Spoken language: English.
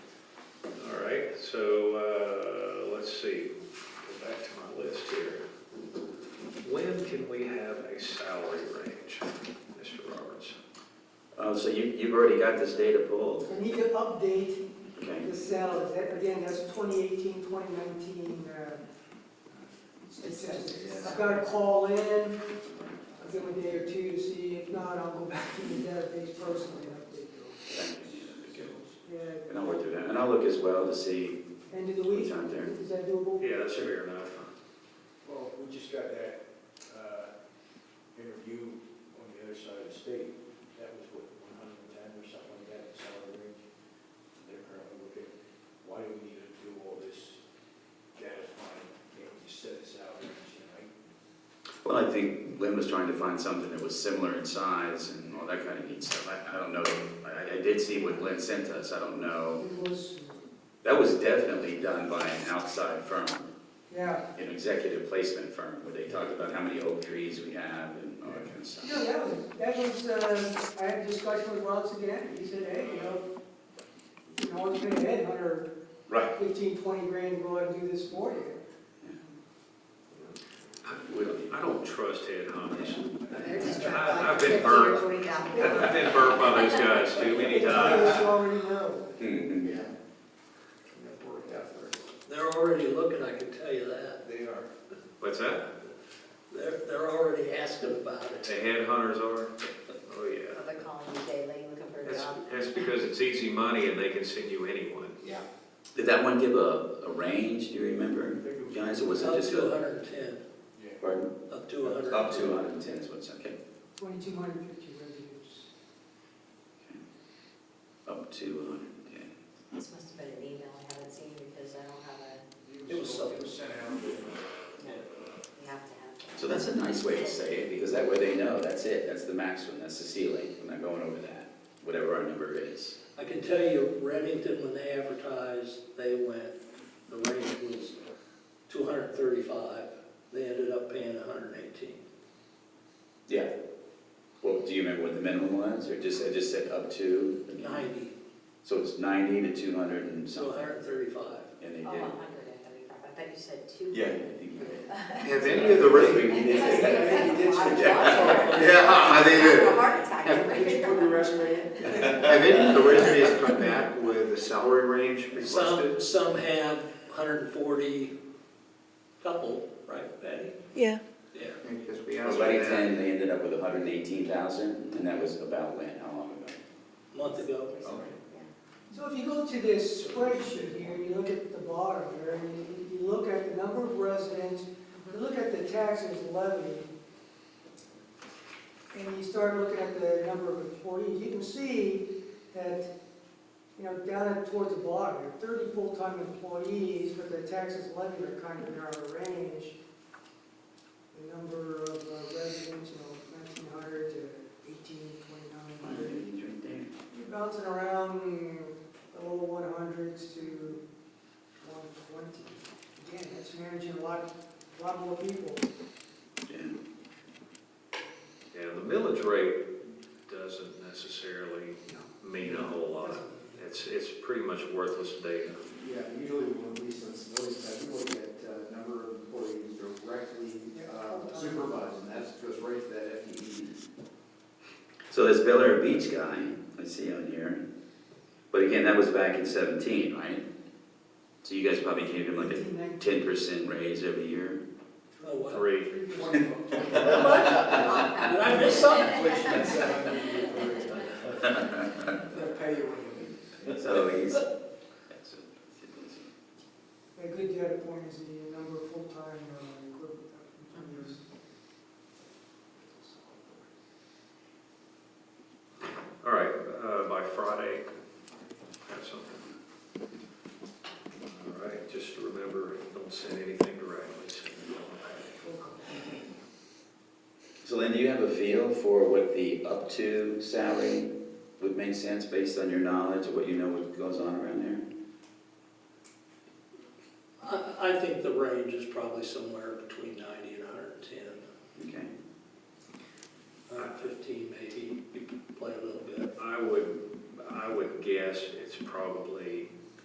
so, uh, let's see, go back to my list here. When can we have a salary range, Mr. Roberts? Oh, so you, you've already got this data pulled, I need to update okay? the salaries, That- again, that's 2018, 2019, uh, it says. I've got to call in, I'll give them a day or two to see, if not, I'll go back to the database personally and update those. Yeah, And I'll work through that, and I'll look as well to see uh, end of the what's week, out there. is that doable? Yeah, that's fair enough. Well, we just got that uh, interview on the other side of the state. That was what, 110 or something like that, salary range. They're currently looking, why do we need to do all this data finding? Can't we just set a salary range tonight? Well, I think Lynn was trying to find something that was similar in size and all that kind of neat stuff. I, I don't know, I, I did see what Lynn sent us, I don't know. It was, That was definitely done by an outside firm, yeah, an executive placement firm, where they talked about how many oak trees we have and all that kind of no, stuff. that was, that was, uh, I had a discussion with Ron Sagan, he said, hey, you know, you know, it's been a headhunter Right. 15, 20 grand to go out and do this for you. We don't- I don't trust headhunters. They're just trying I- to I've like been fifty burned. or forty dollars. I've been burnt by those guys too many It's times. what you already know. Hmm, hmm. They're already looking, I can tell you that. They are. What's that? They're, they're already asking about The it. headhunters are? Oh, yeah. They're calling me daily looking for a That's, job. that's because it's easy money and they can send you anyone. Yeah. Did that one give a, a range, do you remember, guys, or was it Up just to a? hundred and ten, Yeah. Pardon? up to hundred. Up to hundred and ten is what's, okay, 2,250 residents. up to hundred and ten. This must have been an email I haven't seen because I don't have a, It was something. It was sent out. you have to have. that. So that's a nice way to say it, because that way they know, that's it, that's the maximum, that's the ceiling, I'm not going over that, whatever our number is. I can tell you, Remington, when they advertised, they went, the range was two hundred and thirty-five. They ended up paying hundred and eighteen. Yeah. Well, do you remember what the minimum was, or just, I just said up to? Ninety, So it's ninety to two hundred and so something, hundred and thirty-five. and they Oh, did. 135. I thought you said two. Yeah, I think you did. Have any of the rate? Yeah, I think it- A heart attack. Have any of the resumes come back with a salary range Some, some have hundred and forty, couple, right, Patty? Yeah, Yeah. Because we It was like ten, they ended up with hundred and eighteen thousand, and that was about when, how long ago? Month ago. So if you go to this spreadsheet here, and you look at the bottom here, and you, you look at the number of residents, you look at the taxes levied, and you start looking at the number of employees, you can see that, you know, down at- towards the bottom, there are thirty full-time employees, but the taxes levied are kind of in our range. The number of uh, residents, you know, nineteen hundred to eighteen, twenty-nine hundred. Right there. You're bouncing around the low one hundreds to one twenty. Again, that's managing a lot, a lot more people. Yeah. Yeah, the millage rate doesn't necessarily mean a whole lot. It's, it's pretty much worthless data. Yeah, usually when we sensibility study, we look at uh, number of employees directly uh, supervised, and that's just right to that E FTE. So this Bel Air Beach guy, I see on here, but again, that was back in seventeen, right? So you guys probably gave him like a ten percent raise every year? Oh, wow. Three, Did I miss something? They'll pay you when you leave. So he's. A good data point is the number of full-time uh, equivalent employees. all right, uh, by Friday, have something. All right, just remember, don't send anything directly. Send it on. So Lynn, do you have a feel for what the up to salary would make sense based on your knowledge of what you know what goes on around there? I, I think the range is probably somewhere between ninety and hundred and ten, Okay. hundred and fifteen maybe, you could play a little bit. I would, I would guess it's probably